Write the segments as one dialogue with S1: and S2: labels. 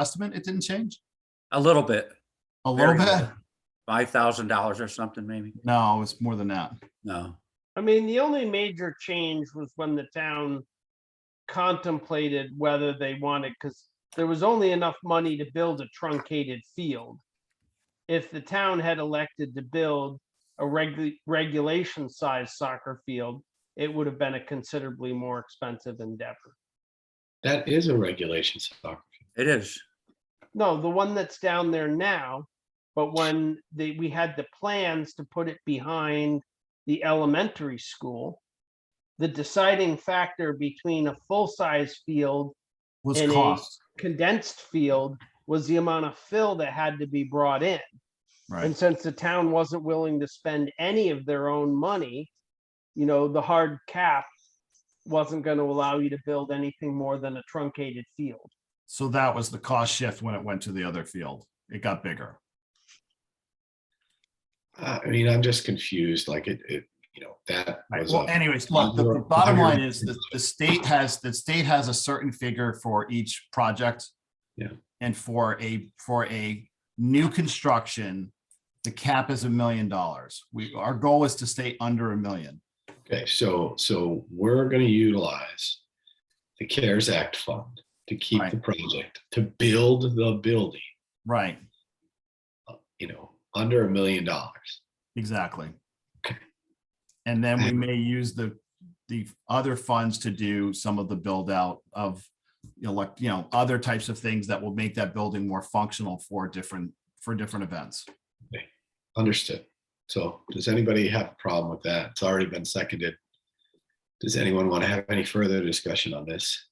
S1: estimate, it didn't change?
S2: A little bit,
S1: A little
S2: Very
S1: bit?
S2: little. five thousand dollars or something, maybe.
S1: No, it's more than that.
S2: No,
S3: I mean, the only major change was when the town contemplated whether they wanted, because there was only enough money to build a truncated field. If the town had elected to build a regu- regulation sized soccer field, it would have been a considerably more expensive endeavor.
S4: That is a regulation soccer.
S2: it is.
S3: No, the one that's down there now, but when they, we had the plans to put it behind the elementary school. The deciding factor between a full-size field,
S1: Was
S3: It is.
S1: cost,
S3: condensed field, was the amount of fill that had to be brought in.
S1: right?
S3: And since the town wasn't willing to spend any of their own money, you know, the hard cap wasn't gonna allow you to build anything more than a truncated field.
S1: So that was the cost shift when it went to the other field. It got bigger.
S4: I I mean, I'm just confused, like it, it, you know, that
S1: Right,
S4: was,
S1: well,
S4: a-
S1: anyways, look, the the
S4: Under-
S1: bottom
S4: under-
S1: line is that the state has, the state has a certain figure for each project.
S4: Yeah.
S1: And for a, for a new construction, the cap is a million dollars. We, our goal is to stay under a million.
S4: okay, so, so we're gonna utilize the CARES Act fund to keep the
S1: Right.
S4: project, to build the building,
S1: Right,
S4: you know, under a million dollars.
S1: exactly.
S4: Okay.
S1: And then we may use the, the other funds to do some of the build out of, you know, like, you know, other types of things that will make that building more functional for different, for different events.
S4: Understood. So does anybody have a problem with that? It's already been seconded. Does anyone want to have any further discussion on this?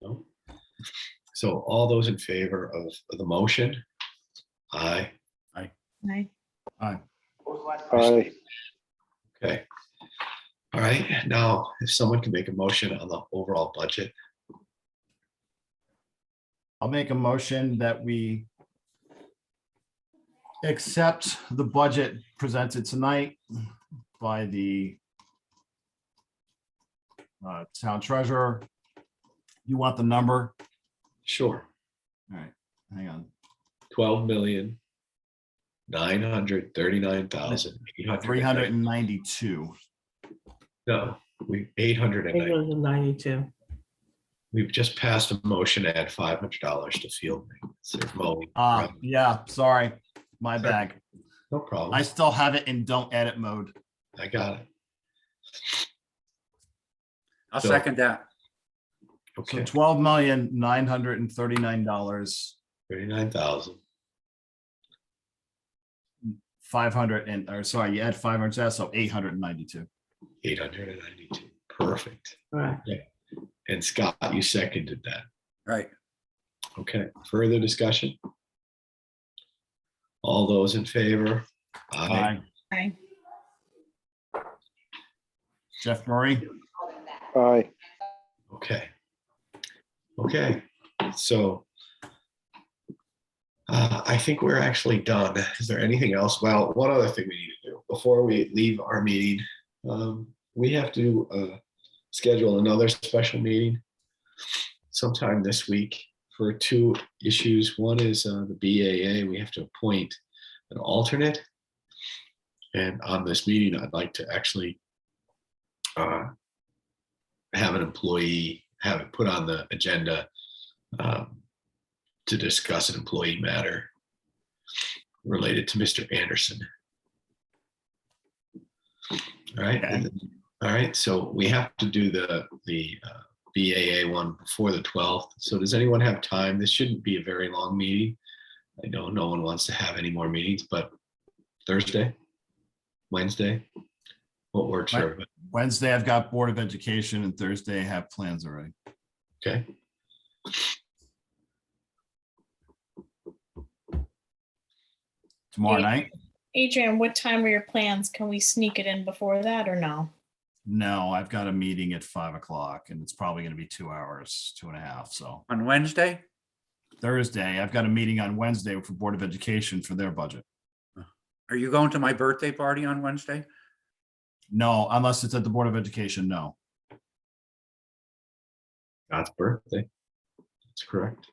S4: No? So all those in favor of the motion? Aye.
S5: Aye.
S6: Aye.
S4: Okay. All right, now if someone can make a motion on the overall budget,
S1: I'll make a motion that we accept the budget presented tonight by the uh, town treasurer. You want the number?
S4: sure,
S1: All right, hang on.
S4: twelve million nine hundred thirty-nine thousand eight hundred.
S1: Three hundred and ninety-two.
S4: No, we, eight hundred and ninety.
S5: Ninety-two.
S4: We've just passed a motion to add five hundred dollars to field maintenance. or mowing.
S1: Ah, yeah, sorry, my bag.
S4: No
S1: I
S4: problem.
S1: still have it in don't edit mode.
S4: I got it.
S2: I'll
S4: So-
S2: second that.
S1: So
S4: Okay,
S1: twelve million, nine hundred and thirty-nine dollars,
S4: thirty-nine thousand.
S1: five hundred and, or sorry, you add five hundred, so eight hundred and ninety-two.
S4: Eight hundred and ninety-two. Perfect.
S5: Correct.
S4: And Scott, you seconded that.
S2: Right.
S4: Okay, further discussion? All those in favor? Aye.
S1: Aye.
S5: Aye.
S1: Jeff Murray,
S6: Aye.
S4: Okay. Okay, so uh, I think we're actually done. Is there anything else? Well, one other thing we need to do before we leave our meeting. um, We have to uh, schedule another special meeting sometime this week for two issues. One is uh, the BAA. We have to appoint an alternate. And on this meeting, I'd like to actually uh, have an employee, have it put on the agenda um, to discuss an employee matter related to Mr. Anderson. All right,
S1: Okay.
S4: all right, so we have to do the, the uh, BAA one before the 12th. So does anyone have time? This shouldn't be a very long meeting. I know no one wants to have any more meetings, but Thursday, Wednesday, what works for
S1: Right.
S4: everybody?
S1: Wednesday I've got Board of Education and Thursday I have plans already.
S4: Okay.
S1: Tomorrow
S5: Yeah.
S1: night?
S5: Adrian, what time are your plans? Can we sneak it in before that or no?
S1: No, I've got a meeting at five o'clock and it's probably gonna be two hours, two and a half, so.
S2: On Wednesday?
S1: Thursday, I've got a meeting on Wednesday for Board of Education for their budget.
S2: Are you going to my birthday party on Wednesday?
S1: No, unless it's at the Board of Education, no.
S4: God's birthday. That's correct.